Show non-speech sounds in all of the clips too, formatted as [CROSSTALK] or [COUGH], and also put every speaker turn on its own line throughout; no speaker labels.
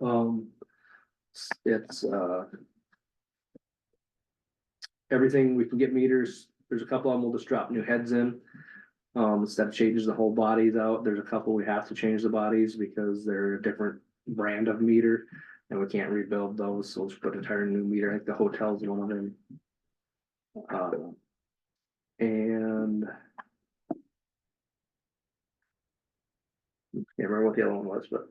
Um, it's, uh. Everything, we can get meters, there's a couple of them, we'll just drop new heads in. Um, step changes the whole bodies out, there's a couple we have to change the bodies because they're a different brand of meter. And we can't rebuild those, so we'll just put an entire new meter, I think the hotel's one of them. Um, And. Can't remember what the other one was, but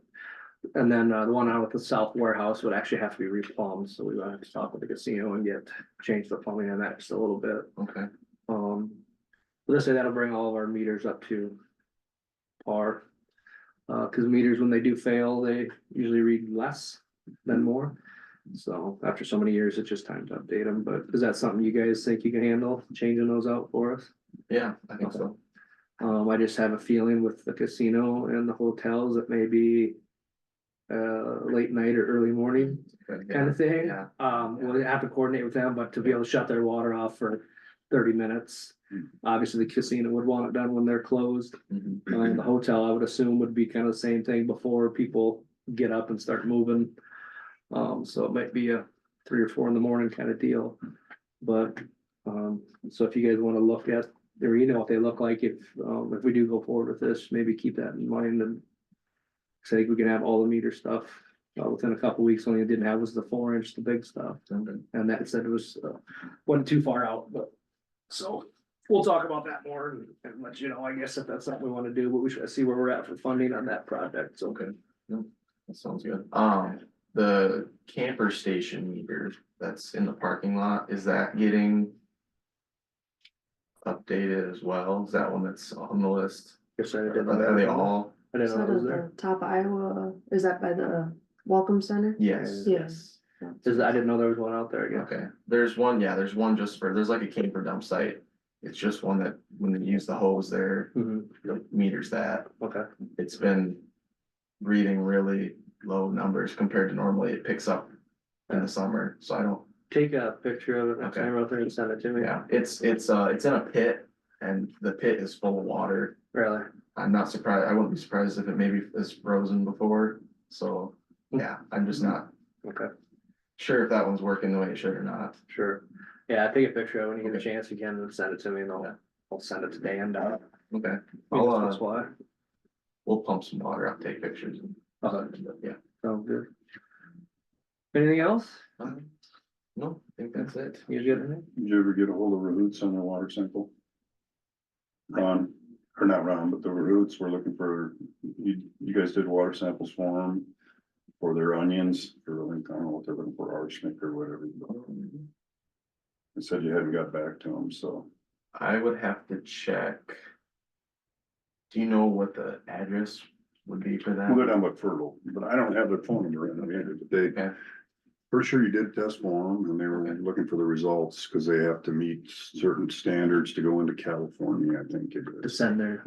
and then uh, the one out at the south warehouse would actually have to be replumbed, so we would have to talk with the casino and get, change the plumbing on that just a little bit.
Okay,
Um, let's say that'll bring all of our meters up to par. Uh, cause meters, when they do fail, they usually read less than more. So after so many years, it's just time to update them, but is that something you guys think you can handle, changing those out for us?
yeah, I think so.
Um, I just have a feeling with the casino and the hotels, it may be uh, late night or early morning kind of thing.
Yeah.
Um, we'll have to coordinate with them, but to be able to shut their water off for thirty minutes.
Hmm.
Obviously, the casino would want it done when they're closed.
Mhm.
Um, the hotel, I would assume, would be kind of the same thing before people get up and start moving. Um, so it might be a three or four in the morning kind of deal. But, um, so if you guys want to look at, or you know what they look like, if, um, if we do go forward with this, maybe keep that in mind and. Say we can have all the meter stuff, uh, within a couple weeks, only it didn't have was the four inch, the big stuff,
Okay.
and that said it was, uh, wasn't too far out, but. So, we'll talk about that more and, and let you know, I guess, if that's something we wanna do, but we should see where we're at for funding on that project, so.
Okay, no, that sounds good. Um, the camper station meter that's in the parking lot, is that getting? Updated as well? Is that one that's on the list?
Guess I didn't know that.
Are they all?
I didn't
Is
know
that
it was
at
there.
the top of Iowa, uh, is that by the Welcome Center?
Yes.
Yes.
Is, I didn't know there was one out there again.
Okay, there's one, yeah, there's one just for, there's like a camper dump site. It's just one that when they use the hose there,
Mhm,
it meters that.
okay,
It's been reading really low numbers compared to normally it picks up in the summer, so I don't
take a picture of it next
Okay.
time you're out there and send it to me.
Yeah, it's, it's, uh, it's in a pit and the pit is full of water.
Really?
I'm not surprised, I wouldn't be surprised if it maybe is frozen before, so, yeah, I'm just not
Okay,
sure if that one's working the way it should or not.
sure. Yeah, take a picture of it when you get a
Okay.
chance again and send it to me and I'll, I'll send it to Dan. uh,
Okay, I'll, uh,
That's why.
we'll pump some water up, take pictures. and-
Okay.
Yeah.
Sounds good. Anything else?
Um, No, I think that's it.
You good? anything?
Did you ever get a hold of Roots on their water sample? Ron, or not Ron, but the Roots were looking for, you, you guys did water samples for them. For their onions, or I think, I don't know what they're looking for, arsenic or whatever, but
Um,
they said you hadn't got back to them, so.
I would have to check. Do you know what the address would be for that?
We'll go down by Fertile, but I don't have their phone number in, I mean, but they.
Okay.
For sure you did test for them, and they were looking for the results, cause they have to meet certain standards to go into California, I think. it
To
is.
send their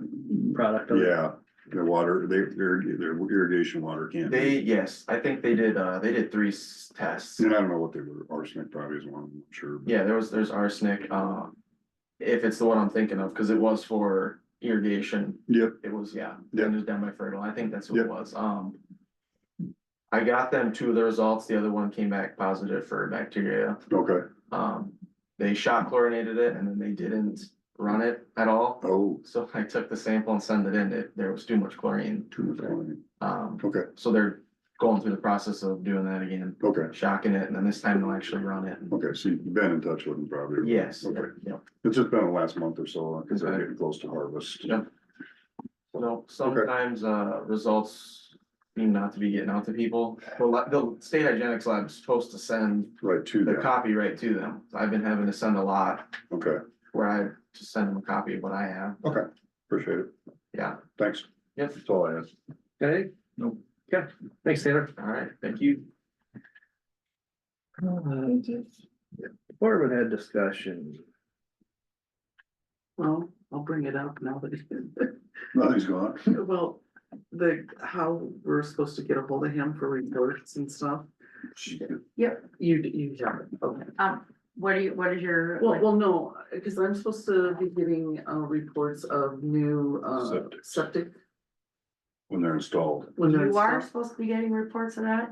product. over.
Yeah, the water, they, their, their irrigation water can't. be-
They, yes, I think they did, uh, they did three s- tests.
And I don't know what they were, arsenic probably is one, I'm sure. but-
Yeah, there was, there's arsenic, um, if it's the one I'm thinking of, cause it was for irrigation,
Yep,
it was, yeah.
Yep.
It was down by Fertile, I think that's what it
Yep.
was, um. I got them two of the results, the other one came back positive for bacteria,
okay,
um, they shot chlorinated it and then they didn't run it at all.
oh,
So [LAUGHS] I took the sample and sent it in, it, there was too much chlorine,
too much chlorine.
um,
okay,
so they're going through the process of doing that again.
okay,
Shocking it and then this time they'll actually run it.
okay, so you've been in touch with them probably.
Yes,
Okay,
yeah.
it's just been the last month or so, cause they're
Okay.
getting close to harvest.
Yep. No, sometimes uh results seem not to be getting out to people. The la- the state hygienics lab is supposed to send
Right to
the
that,
copy right to them. I've been having to send a lot
okay,
where I just send them a copy of what I have.
okay, appreciate it,
Yeah,
thanks,
yep,
that's all I asked.
Okay?
Nope.
Yeah, thanks, Taylor.
all right, thank you.
Department head discussion.
Well, I'll bring it up now that,
Nothing's [LAUGHS] gone,
[LAUGHS] well, the, how we're supposed to get a hold of him for reports and stuff. You, you have it, okay.
Um, what do you, what is your?
Well, well, no, because I'm supposed to be getting, uh, reports of new, uh,
Septic.
septic.
when they're installed.
when they're
You are
installed.
supposed to be getting reports of that?